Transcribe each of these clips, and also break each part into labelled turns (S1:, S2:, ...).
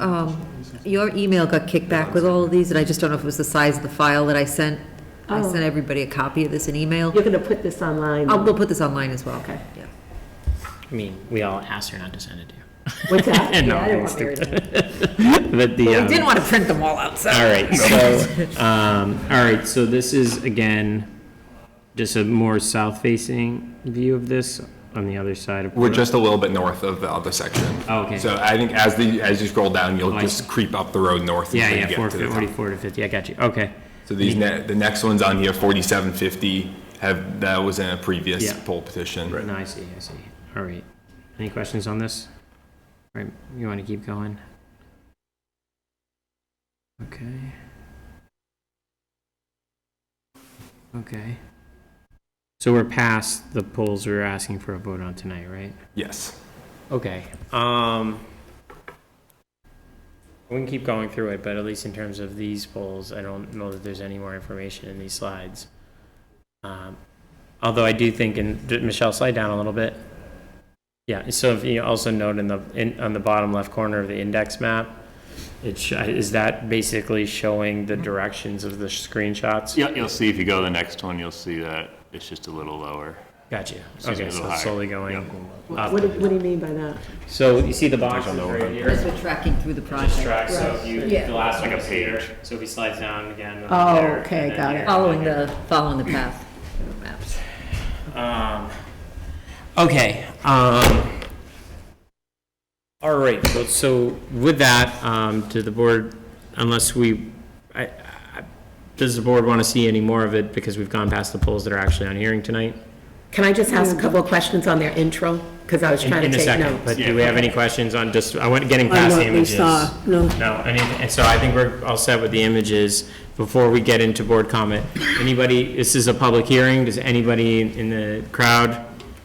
S1: Um, Your email got kicked back with all of these, and I just don't know if it was the size of the file that I sent. I
S2: Oh.
S1: sent everybody a copy of this in email.
S2: You're going to put this online?
S3: Oh.
S1: I'll, we'll put this online as well.
S2: Okay.
S1: Yeah.
S3: I mean, we all asked her not to send it to you.
S2: What's that?
S3: No,
S2: Yeah, I don't
S3: I'm
S2: want Mary to know.
S3: But the,
S1: But
S3: um,
S1: we didn't want to print them all out, so.
S3: all right, so, um, all right, so this is again, just a more south-facing view of this on the other side of.
S4: We're just a little bit north of the other section.
S3: Oh, okay.
S4: So I think as the, as you scroll down,
S3: Oh,
S4: you'll
S3: I
S4: just creep up the road north.
S3: Yeah,
S4: until you
S3: yeah,
S4: get
S3: four,
S4: to the top.
S3: forty-four to fifty, I got you, okay.
S4: So these, ne- the next ones on here, forty-seven fifty, have, that was in a previous
S3: Yeah.
S4: poll petition.
S3: No, I see, I see, all right. Any questions on this? All right, you want to keep going? Okay. Okay. So we're past the polls we were asking for a vote on tonight, right?
S4: Yes.
S3: Okay, um, we can keep going through it, but at least in terms of these polls, I don't know that there's any more information in these slides. Um, Although I do think, and Michelle, slide down a little bit. Yeah, so if you also note in the, in, on the bottom left corner of the index map, it sh- is that basically showing the directions of the screenshots?
S5: Yeah, you'll see if you go to the next one, you'll see that it's just a little lower.
S3: Gotcha,
S5: It's just a
S3: okay,
S5: little
S3: so it's
S5: higher.
S3: slowly going
S2: What,
S3: up.
S2: what do what do you mean by that?
S3: So you see the boxes right here?
S1: Because we're tracking through the
S3: Just
S1: project.
S3: track, so if you,
S1: Yeah.
S3: the last one
S5: Like a
S3: is here,
S5: page.
S3: so if he slides down again. it'll be
S2: Oh,
S3: there,
S2: okay,
S3: and then
S2: got it.
S3: here.
S1: Following the, following the path of the maps.
S3: Um, okay, um, all right, so, so with that, um, to the board, unless we, I, I, does the board want to see any more of it because we've gone past the polls that are actually on hearing tonight?
S2: Can I just ask a couple of questions on their intro? Because I was
S3: In
S2: trying
S3: in
S2: to
S3: a
S2: take
S3: second,
S2: notes.
S3: but do we have any questions on just, I want, getting
S6: I
S3: past the
S6: know we
S3: images?
S6: saw, no.
S3: No, and, it- and so I think we're all set with the images. Before we get into board comment, anybody, this is a public hearing, does anybody in the crowd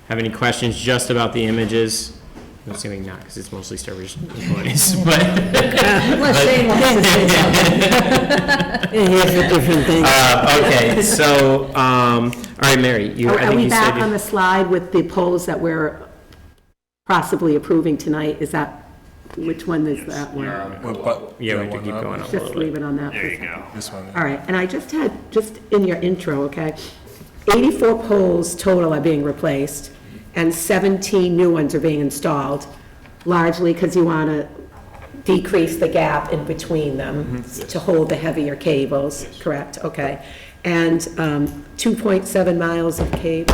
S3: have any questions just about the images? I'm assuming not, because it's mostly Sturbridge employees, but,
S1: Unless Shane wants to say something.
S6: Here's a different thing.
S3: uh, okay, so, um, all right, Mary, you,
S2: Are
S3: I
S2: are
S3: think
S2: we
S3: you
S2: back on
S3: said.
S2: the slide with the polls that we're possibly approving tonight? Is that, which one is that one?
S3: Yeah, we have to keep going on a
S2: Just
S3: little
S2: leave
S3: bit.
S2: it on that. for a
S5: There you
S2: second.
S5: go.
S2: All right, and I just had, just in your intro, okay, 84 poles total are being replaced, and 17 new ones are being installed, largely because you want to decrease the gap in between them
S5: Mm-hmm.
S2: to hold the heavier cables, correct? Okay. And um, 2.7 miles of cable,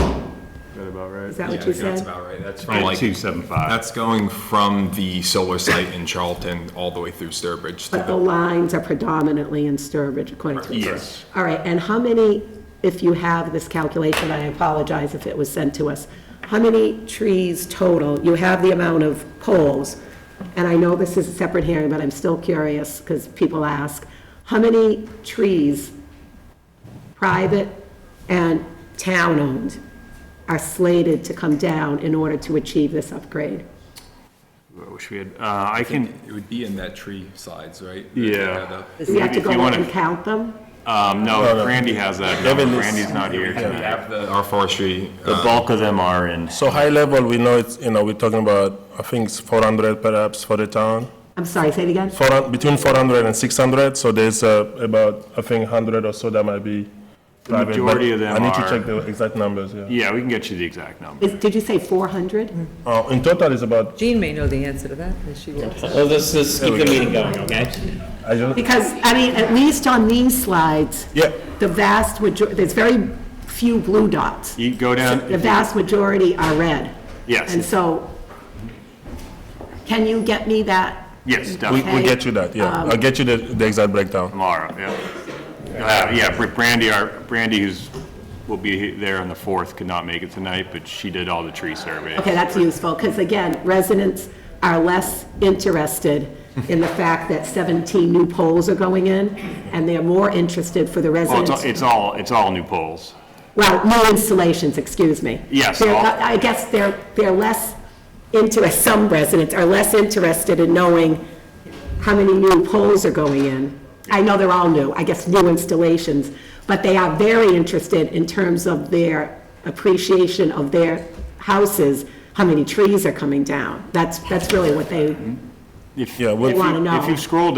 S5: That about right?
S2: is that
S4: Yeah, I
S2: what you
S4: think That's
S2: said?
S4: about right. That's from
S5: Right,
S4: like,
S5: two seven five.
S4: that's going from the solar site in Charlton all the way through Sturbridge to
S2: But the
S4: the,
S2: lines are predominantly in Sturbridge, according to the
S5: Yes.
S2: All right, and how many, if you have this calculation, I apologize if it was sent to us, how many trees total, you have the amount of poles, and I know this is a separate hearing, but I'm still curious, because people ask, how many trees, private and town-owned, are slated to come down in order to achieve this upgrade?
S5: I wish we had, uh, I can,
S4: it would be in that tree slides, right?
S5: yeah.
S2: Do we have to
S5: If
S2: go
S5: you
S2: out
S5: wanna-
S2: and count them?
S5: Um, no, Randy has that. Randy's not here
S4: We
S5: tonight.
S4: have the, our forestry, uh,
S5: The bulk of them are in.
S7: So high level, we know it's, you know, we're talking about, I think it's 400 perhaps for the town,
S2: I'm sorry, say it again?
S7: Four hun- between 400 and 600, so there's uh, about, I think, 100 or so that might be private. but
S5: majority of them
S7: I need
S5: are-
S7: to check the exact numbers, yeah.
S5: Yeah, we can get you the exact number.
S2: Is- Did you say 400?
S7: Uh, In total, it's about,
S1: Jean may know the answer to that, and she will.
S3: Well, let's, let's keep the meeting going, okay?
S7: I just,
S2: Because, I mean, at least on these slides,
S7: yeah,
S2: the vast majority, there's very few blue dots.
S5: You go down,
S2: The vast majority are red.
S5: um, Yes.
S2: And so, can you get me that?
S5: yes,
S7: we
S5: definitely
S7: we get you that, yeah. I'll get you the the exact breakdown.
S5: tomorrow, yeah. Uh, yeah, Br- Brandy, our, Brandy who's, will be he- there on the fourth, could not make it tonight, but she did all the tree surveys.
S2: Okay, that's useful, because again, residents are less interested in the fact that 17 new poles are going in, and they're more interested for the
S5: Well, Oh, it's all-
S2: residents.
S5: it's all, it's all new polls.
S2: Well, new installations, excuse me.
S5: Yes,
S2: They're-
S5: all-
S2: I I guess they're, they're less into, some residents are less interested in knowing how many new poles are going in. I know they're all new, I guess new installations, but they are very interested in terms of their appreciation of their houses, how many trees are coming down. That's, that's really what they
S5: if,
S7: Yeah,
S5: if
S7: we'll-
S2: They wanna
S5: you- if
S2: know.
S5: you scroll down